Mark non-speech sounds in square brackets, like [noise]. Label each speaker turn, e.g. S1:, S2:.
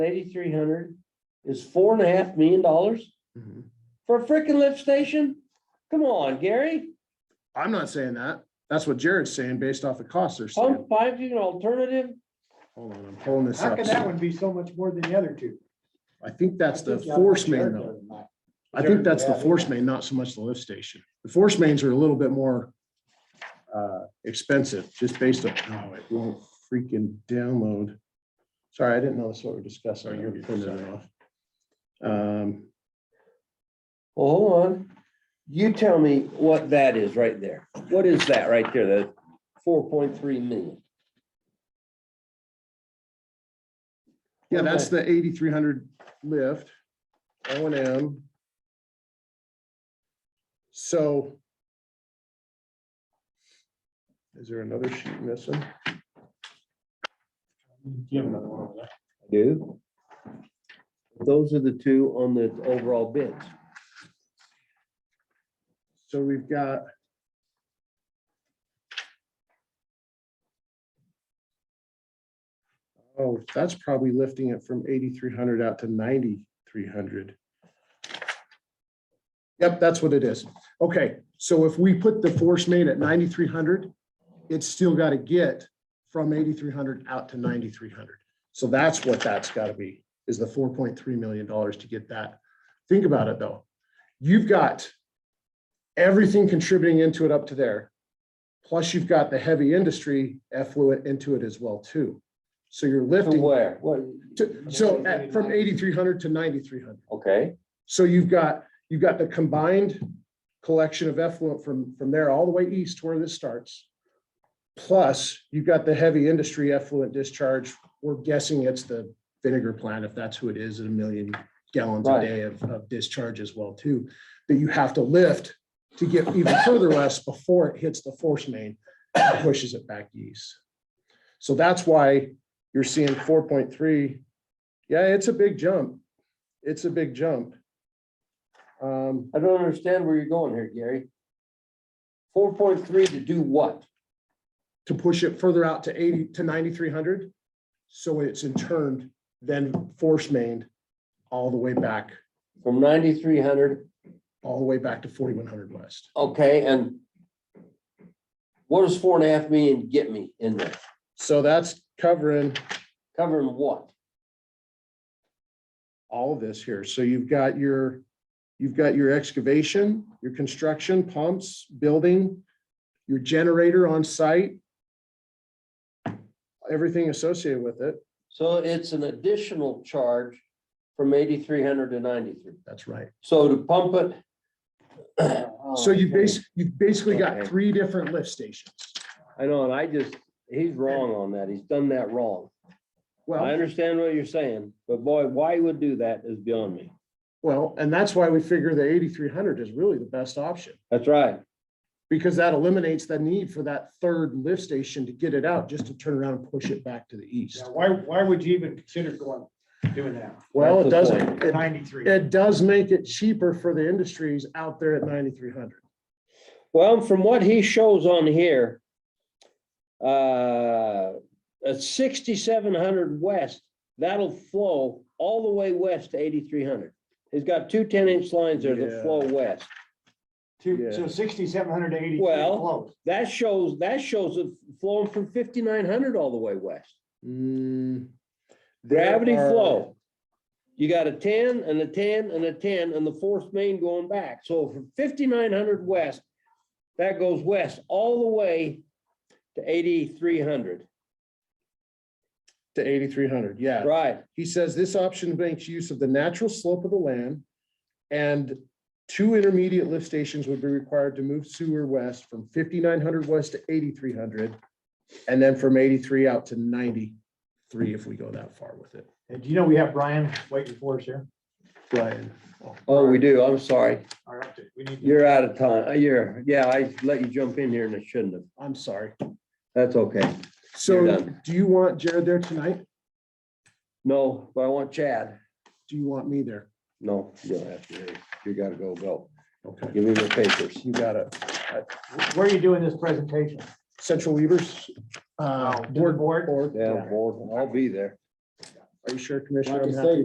S1: Eighty-three hundred is four and a half million dollars for a freaking lift station? Come on, Gary.
S2: I'm not saying that. That's what Jared's saying based off the cost they're saying.
S1: Pump five's an alternative.
S2: Hold on, I'm pulling this
S3: How
S2: up.
S3: can that one be so much more than the other two?
S2: I think that's the
S3: I think
S2: force
S3: y'all
S2: main
S3: shared
S2: though.
S3: those, Mike.
S2: I think that's the
S3: Yeah.
S2: force main, not so much the lift station. The force mains are a little bit more uh, expensive, just based on, oh, it won't freaking download. Sorry, I didn't know that's what we're discussing.
S4: Oh, you're good.
S2: Printed it off. Um,
S1: Well, hold on. You tell me what that is right there. What is that right there? The four point three million?
S2: Yeah, that's the eighty-three hundred lift, O and M. So. Is there another sheet missing?
S4: You have another one over there.
S1: Do. Those are the two on the overall bids.
S2: So we've got. Oh, that's probably lifting it from eighty-three hundred out to ninety-three hundred. Yep, that's what it is. Okay, so if we put the force main at ninety-three hundred, it's still got to get from eighty-three hundred out to ninety-three hundred. So that's what that's got to be, is the four point three million dollars to get that. Think about it, though. You've got everything contributing into it up to there. Plus you've got the heavy industry effluent into it as well too. So you're
S1: To
S2: lifting
S1: where? What?
S2: to, so at, from eighty-three hundred to ninety-three hundred.
S1: Okay,
S2: So you've got, you've got the combined collection of effluent from, from there all the way east to where this starts. Plus, you've got the heavy industry effluent discharge. We're guessing it's the vinegar plant, if that's who it is, at a million gallons a
S1: Right.
S2: day of, of discharge as well too, that you have to lift to get even further less before it hits the force main, and pushes it back east. So that's why you're seeing four point three. Yeah, it's a big jump. It's a big jump. Um,
S1: I don't understand where you're going here, Gary. Four point three to do what?
S2: to push it further out to eighty to ninety-three hundred. So it's in turn then force mained all the way back,
S1: From ninety-three hundred,
S2: all the way back to forty-one hundred west.
S1: okay, and what does four and a half million get me in there?
S2: So that's covering
S1: Covering what?
S2: all of this here. So you've got your, you've got your excavation, your construction pumps, building, your generator on site. Everything associated with it.
S1: So it's an additional charge from eighty-three hundred to ninety-three.
S2: That's right.
S1: So to pump it.
S2: [clears throat] So you base, you've basically got
S1: Oh, Okay.
S2: three different lift stations.
S1: I know, and I just, he's wrong on that. He's done that wrong. I
S2: Well,
S1: understand what you're saying, but boy, why he would do that is beyond me.
S2: well, and that's why we figure the eighty-three hundred is really the best option.
S1: That's right.
S2: Because that eliminates the need for that third lift station to get it out, just to turn around and push it back to the east.
S3: Yeah, Why, why would you even consider going, doing that?
S2: Well, it
S1: That's the
S2: doesn't, it
S3: Ninety-three.
S2: it does make it cheaper for the industries out there at ninety-three hundred.
S1: Well, from what he shows on here, uh, at sixty-seven hundred west, that'll flow all the way west to eighty-three hundred. He's got two ten-inch lines there that
S2: Yeah.
S1: flow west.
S3: Two- So sixty-seven hundred eighty-three
S1: Well-
S3: flows.
S1: That shows, that shows it flowing from fifty-nine hundred all the way west. Mm, Gravity flow. You got a ten and a ten and a ten and the fourth main going back. So from fifty-nine hundred west, that goes west all the way to eighty-three hundred.
S2: To eighty-three hundred, yeah.
S1: Right,
S2: He says this option makes use of the natural slope of the land. And two intermediate lift stations would be required to move sewer west from fifty-nine hundred west to eighty-three hundred. And then from eighty-three out to ninety-three if we go that far with it.
S3: And do you know we have Brian waiting for us here?
S2: Brian,
S1: oh, we do, I'm sorry,
S3: All right, we need to-
S1: you're out of time, Uh, you're, yeah, I let you jump in here and I shouldn't have,
S2: I'm sorry.
S1: that's okay, You're
S2: So
S1: done.
S2: do you want Jared there tonight?
S1: no, but I want Chad,
S2: Do you want me there?
S1: no, you don't have to, leave. you gotta go, go,
S2: Okay,
S1: give me the papers.
S2: you got it.
S3: Where are you doing this presentation?
S2: Central Weavers. uh,
S3: Oh. To the board?
S2: Board.
S1: Yeah, I'll be there.
S2: Are you sure, Commissioner?
S4: Like I
S2: I'm happy
S4: say,